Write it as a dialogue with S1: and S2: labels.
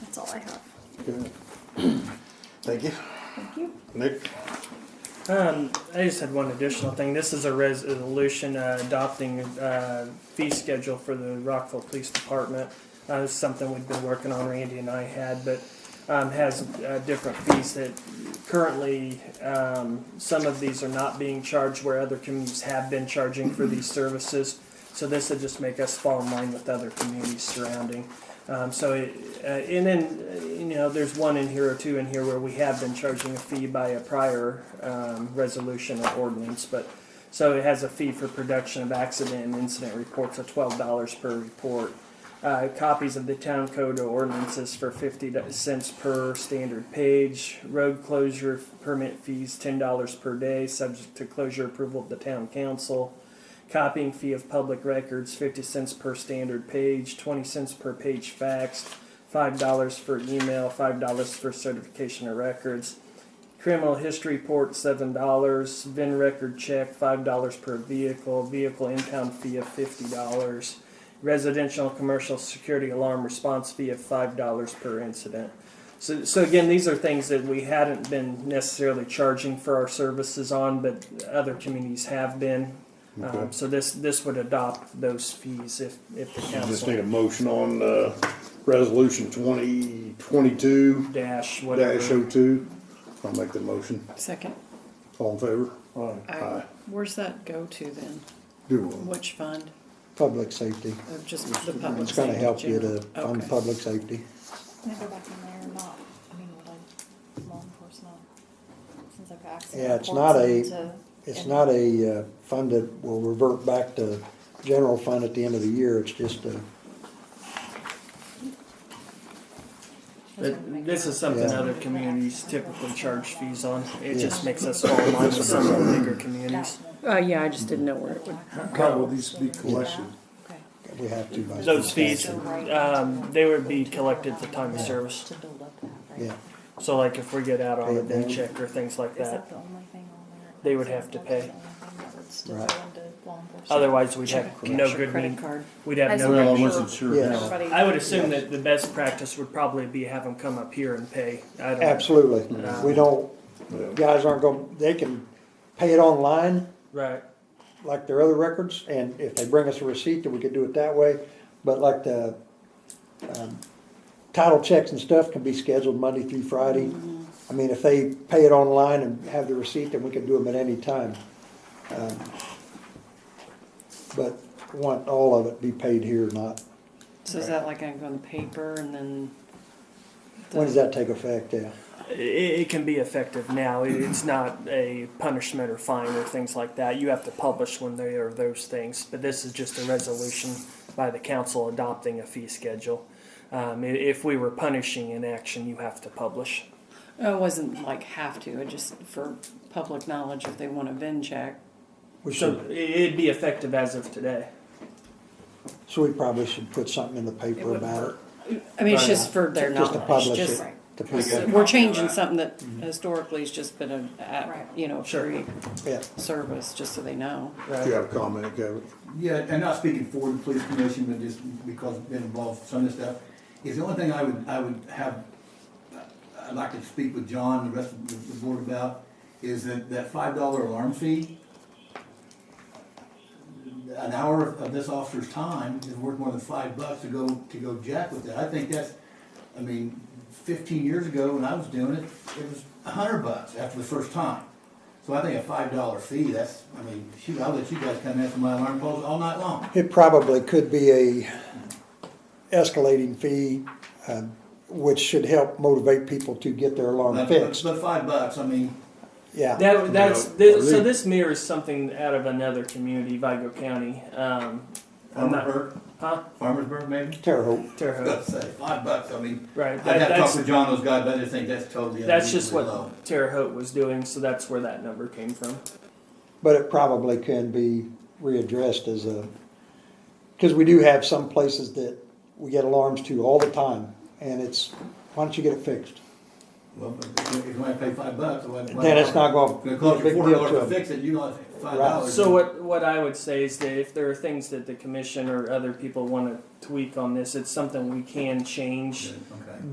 S1: That's all I have.
S2: Good. Thank you.
S1: Thank you.
S2: Nick?
S3: Um, I just had one additional thing. This is a resolution uh, adopting uh, fee schedule for the Rockville Police Department. Uh, it's something we've been working on, Randy and I had, but um, has uh, different fees that currently um, some of these are not being charged where other communities have been charging for these services. So this would just make us fall in line with other communities surrounding. Um, so, it, uh, and then, uh, you know, there's one in here or two in here where we have been charging a fee by a prior um, resolution or ordinance, but so it has a fee for production of accident and incident reports of twelve dollars per report. Uh, copies of the town code or ordinances for fifty cents per standard page. Road closure permit fees ten dollars per day, subject to closure approval of the town council. Copying fee of public records, fifty cents per standard page, twenty cents per page faxed, five dollars for email, five dollars for certification of records. Criminal history report, seven dollars, VIN record check, five dollars per vehicle, vehicle impound fee of fifty dollars, residential and commercial security alarm response fee of five dollars per incident. So, so again, these are things that we hadn't been necessarily charging for our services on, but other communities have been.
S2: Okay.
S3: Um, so this, this would adopt those fees if, if the
S2: Just need
S3: council
S2: a motion on, uh, resolution twenty twenty-two
S3: dash
S2: dash oh
S3: whatever.
S2: two. I'll make the motion.
S4: Second,
S2: All in favor?
S4: I-
S2: Aye.
S4: where's that go to then?
S2: Do one.
S4: Which fund?
S5: Public safety.
S4: Uh, Just the public.
S5: It's gonna
S4: safety
S5: help you to,
S4: general?
S5: on
S4: Okay.
S5: public safety.
S1: Can I go back in there or not? I mean, would I, law enforcement, since I've got accident.
S5: Yeah,
S1: reports
S5: it's not a-
S1: into-
S5: It's not a uh, fund that will revert back to general fund at the end of the year, it's just a,
S3: But This is something
S5: Yeah.
S3: other communities typically charge fees on. It just makes us fall in line with some of the bigger communities.
S4: Uh, yeah, I just didn't know where it would.
S1: How will these be
S5: collected?
S1: Okay.
S5: we have to. by
S3: Those fees,
S5: statute.
S3: um, they would be collected at the time of service.
S1: To build up that, right?
S5: Yeah,
S3: So like if we get out on a day check or things like
S1: Is that
S3: that,
S1: the only thing on there?
S3: They would have to
S1: That's
S3: pay.
S1: the only thing that would still
S5: Right.
S1: go into law enforcement.
S3: otherwise we'd have
S4: Check-
S3: no
S4: check
S3: Oh, good,
S4: Credit
S3: mean-
S4: card.
S3: we'd have no
S2: Well, I
S3: good.
S2: wasn't sure.
S5: yes,
S3: I would assume that the best practice would probably be have them come up here and pay. I don't,
S5: absolutely.
S3: Yeah.
S5: We don't,
S2: Yeah.
S5: guys aren't gonna, they can pay it online
S3: right,
S5: like their other records, and if they bring us a receipt, then we could do it that way. But like the, um, title checks and stuff can be scheduled Monday through Friday.
S4: Mm-hmm.
S5: I mean, if they pay it online and have the receipt, then we can do them at any time. Um, But want all of it be paid here, not,
S4: So is that like I go in the paper and then? the-
S5: when does that take effect, yeah?
S3: it, it can be effective now. It- It's not a punishment or fine or things like that. You have to publish when they are those things. But this is just a resolution by the council adopting a fee schedule. Um, i- if we were punishing inaction, you have to publish.
S4: Oh, it wasn't like have to, it just for public knowledge if they want a VIN check.
S5: We
S3: So
S5: should,
S3: i- it'd be effective as of today.
S5: so we probably should put something in the
S4: It
S5: paper
S4: wouldn't
S5: about it.
S4: hurt. I mean, it's just for their
S5: Just to
S4: knowledge,
S5: publish
S4: just,
S5: it to people,
S4: we're changing something that historically has just been a- a,
S1: Right.
S4: you know,
S3: Mm-hmm. Sure.
S4: free
S5: yeah.
S4: service, just so they know.
S2: Do you have a comment, Kevin?
S6: Yeah, and not speaking for the police commission, but just because I've been involved with some of this stuff, is the only thing I would, I would have, I'd like to speak with John and the rest of the- the board about, is that, that five dollar alarm fee, an hour of- of this officer's time is worth more than five bucks to go, to go jack with that. I think that's, I mean, fifteen years ago when I was doing it, it was a hundred bucks after the first time. So I think a five dollar fee, that's, I mean, shoot, I'll let you guys come in for my alarm calls all night long.
S5: It probably could be a escalating fee, um, which should help motivate people to get their alarm
S6: But- but-
S5: fixed.
S6: But five bucks, I mean,
S5: Yeah,
S3: That, that's
S2: Yeah.
S3: this, so. This mirrors something out of another community, Vigo County. Um, I'm not-
S6: Farmersburg,
S3: huh?
S6: Farmersburg maybe?
S5: Terre Haute.
S3: Terre
S6: I was gonna
S3: Haute.
S6: say, five bucks, I mean,
S3: Right.
S6: I'd
S3: that-
S6: have to uh, talk
S3: that's
S6: with John, those guys, but I just think that's totally
S3: that's just
S6: unreasonably low.
S3: what Terre Haute was doing. So that's where that number came from.
S5: But it probably can be readdressed as a, because we do have some places that we get alarms to all the time, and it's, why don't you get it fixed?
S6: Well, but if you- if you wanna pay five bucks, why? why
S5: Then it's not gonna
S6: It's gonna
S5: be a
S6: cost you
S5: big
S6: four
S5: deal
S6: dollars
S5: to
S6: to
S5: them.
S6: fix it, you only have five
S5: Right.
S6: dollars.
S3: So what what I would say is that if there are things that the commission or other people want to tweak on this, it's something we can change.
S6: Okay.